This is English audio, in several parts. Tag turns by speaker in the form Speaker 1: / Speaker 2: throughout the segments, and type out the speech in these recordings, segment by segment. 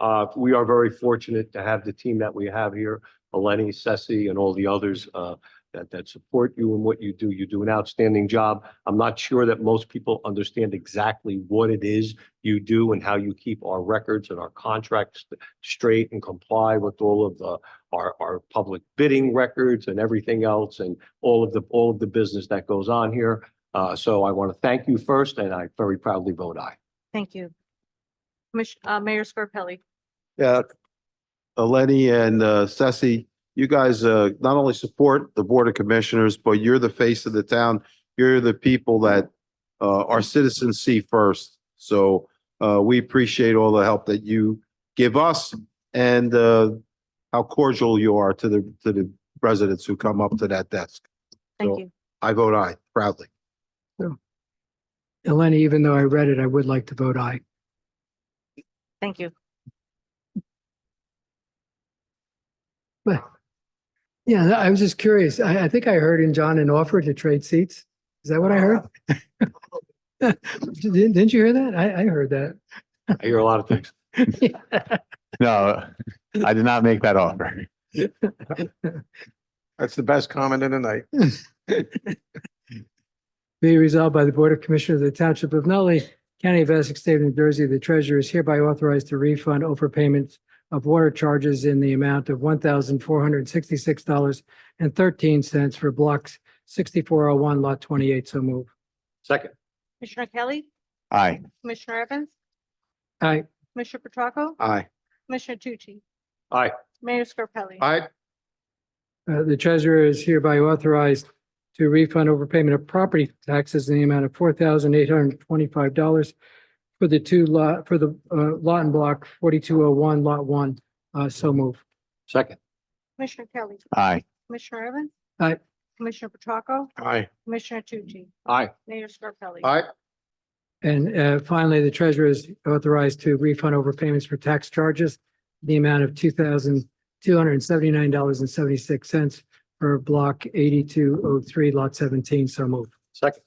Speaker 1: Uh, we are very fortunate to have the team that we have here, Eleni, Sessi, and all the others, uh, that, that support you in what you do. You do an outstanding job. I'm not sure that most people understand exactly what it is you do and how you keep our records and our contracts straight and comply with all of the, our, our public bidding records and everything else and all of the, all of the business that goes on here. Uh, so I want to thank you first, and I very proudly vote aye.
Speaker 2: Thank you. Commission, uh, Mayor Scarpelli.
Speaker 3: Yeah. Eleni and uh, Sessi, you guys uh, not only support the Board of Commissioners, but you're the face of the town. You're the people that uh, our citizens see first. So uh, we appreciate all the help that you give us and uh, how cordial you are to the, to the residents who come up to that desk.
Speaker 2: Thank
Speaker 3: So-
Speaker 2: you.
Speaker 3: I vote aye proudly.
Speaker 4: Eleni, even though I read it, I would like to vote aye.
Speaker 2: Thank you.
Speaker 4: But, yeah, I was just curious. I, I think I heard in John an offer to trade seats. Is that what I heard? Didn't, didn't you hear that? I, I heard
Speaker 1: I hear a lot of things.
Speaker 4: that.
Speaker 5: No, I did not make that offer.
Speaker 6: That's the best comment of the night.
Speaker 4: Be resolved by the Board of Commissioners of the Township of Nutley, County of Essex, State of New Jersey, the treasurer is hereby authorized to refund overpayments of water charges in the amount of one thousand four hundred and sixty-six dollars and thirteen cents for blocks sixty-four oh one, lot twenty-eight. So move.
Speaker 1: Second,
Speaker 2: Commissioner Kelly,
Speaker 5: Aye.
Speaker 2: Commissioner Evans,
Speaker 4: Aye.
Speaker 2: Commissioner Petracca,
Speaker 3: Aye.
Speaker 2: Commissioner Tucci.
Speaker 1: Aye.
Speaker 2: Mayor Scarpelli.
Speaker 3: Aye.
Speaker 4: Uh, the treasurer is hereby authorized to refund overpayment of property taxes in the amount of four thousand eight hundred and twenty-five dollars for the two lot, for the, uh, lot and block forty-two oh one, lot one. Uh, so move.
Speaker 1: second,
Speaker 2: Commissioner Kelly,
Speaker 5: Aye.
Speaker 2: Commissioner Evans.
Speaker 4: Aye.
Speaker 2: Commissioner Petracca,
Speaker 6: Aye.
Speaker 2: Commissioner Tucci,
Speaker 1: aye,
Speaker 2: Mayor Scarpelli.
Speaker 3: Aye.
Speaker 4: And, uh, finally, the treasurer is authorized to refund overpayments for tax charges in the amount of two thousand two hundred and seventy-nine dollars and seventy-six cents for block eighty-two oh three, lot seventeen. So move.
Speaker 1: second,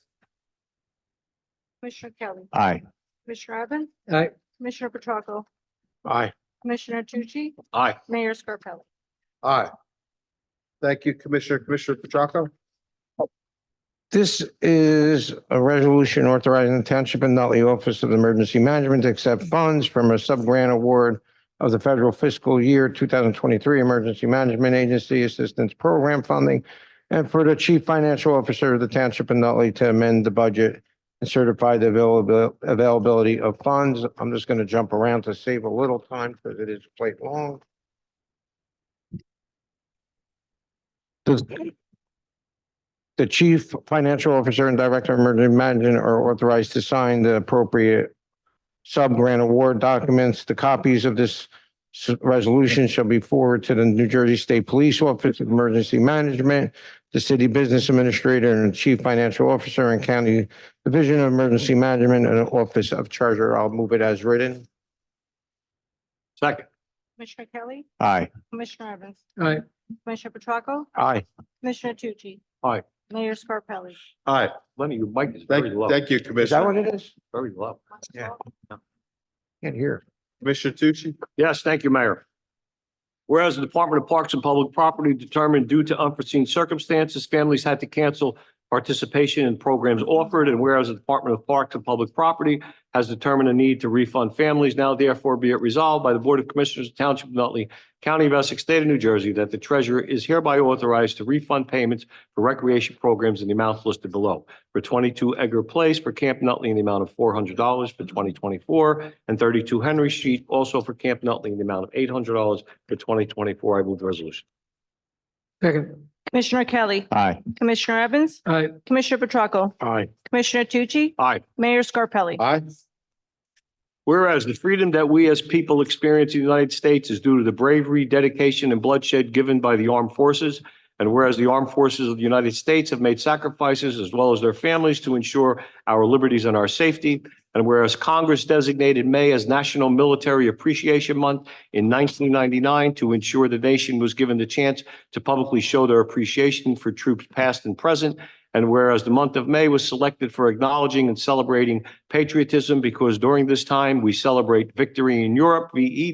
Speaker 2: Commissioner Kelly,
Speaker 5: Aye.
Speaker 2: Commissioner Evans,
Speaker 4: Aye.
Speaker 2: Commissioner Petracca,
Speaker 6: Aye.
Speaker 2: Commissioner Tucci,
Speaker 1: aye.
Speaker 2: Mayor Scarpelli.
Speaker 3: Aye. Thank you, Commissioner. Commissioner Petracca?
Speaker 6: This is a resolution authorizing the Township of Nutley Office of Emergency Management to accept funds from a sub-grant award of the federal fiscal year two thousand twenty-three Emergency Management Agency Assistance Program funding and for the Chief Financial Officer of the Township of Nutley to amend the budget and certify the availability, availability of funds. I'm just going to jump around to save a little time because it is quite long. Does- the chief financial officer and director of emergency management are authorized to sign the appropriate sub-grant award documents. The copies of this s- resolution shall be forwarded to the New Jersey State Police Office of Emergency Management, the city business administrator and chief financial officer and county division of emergency management and office of treasurer. I'll move it as written.
Speaker 1: Second,
Speaker 2: Commissioner Kelly,
Speaker 5: Aye.
Speaker 2: Commissioner Evans,
Speaker 4: Aye.
Speaker 2: Commissioner Petracca,
Speaker 6: Aye.
Speaker 2: Commissioner Tucci.
Speaker 1: Aye.
Speaker 2: Mayor Scarpelli.
Speaker 3: Aye.
Speaker 1: Lenny, your mic is very
Speaker 3: Thank,
Speaker 1: low,
Speaker 3: thank you,
Speaker 6: Is that
Speaker 3: Commissioner.
Speaker 6: what it is?
Speaker 1: very low.
Speaker 6: Yeah. Can't hear.
Speaker 3: Commissioner Tucci?
Speaker 1: Yes, thank you, Mayor. Whereas the Department of Parks and Public Property determined due to unforeseen circumstances, families had to cancel participation in programs offered, and whereas the Department of Parks and Public Property has determined a need to refund families, now therefore be it resolved by the Board of Commissioners of Township of Nutley, County of Essex, State of New Jersey, that the treasurer is hereby authorized to refund payments for recreation programs in the amounts listed below. For twenty-two Edgar Place for Camp Nutley in the amount of four hundred dollars for twenty twenty-four, and thirty-two Henry Street also for Camp Nutley in the amount of eight hundred dollars for twenty twenty-four. I move the resolution.
Speaker 4: Second.
Speaker 2: Commissioner Kelly,
Speaker 5: Aye.
Speaker 2: Commissioner Evans,
Speaker 4: Aye.
Speaker 2: Commissioner Petracca,
Speaker 6: Aye.
Speaker 2: Commissioner Tucci,
Speaker 1: Aye.
Speaker 2: Mayor Scarpelli.
Speaker 3: Aye.
Speaker 1: Whereas the freedom that we as people experience in the United States is due to the bravery, dedication, and bloodshed given by the armed forces. And whereas the armed forces of the United States have made sacrifices as well as their families to ensure our liberties and our safety. And whereas Congress designated May as National Military Appreciation Month in nineteen ninety-nine to ensure the nation was given the chance to publicly show their appreciation for troops past and present. And whereas the month of May was selected for acknowledging and celebrating patriotism because during this time we celebrate victory in Europe, E VE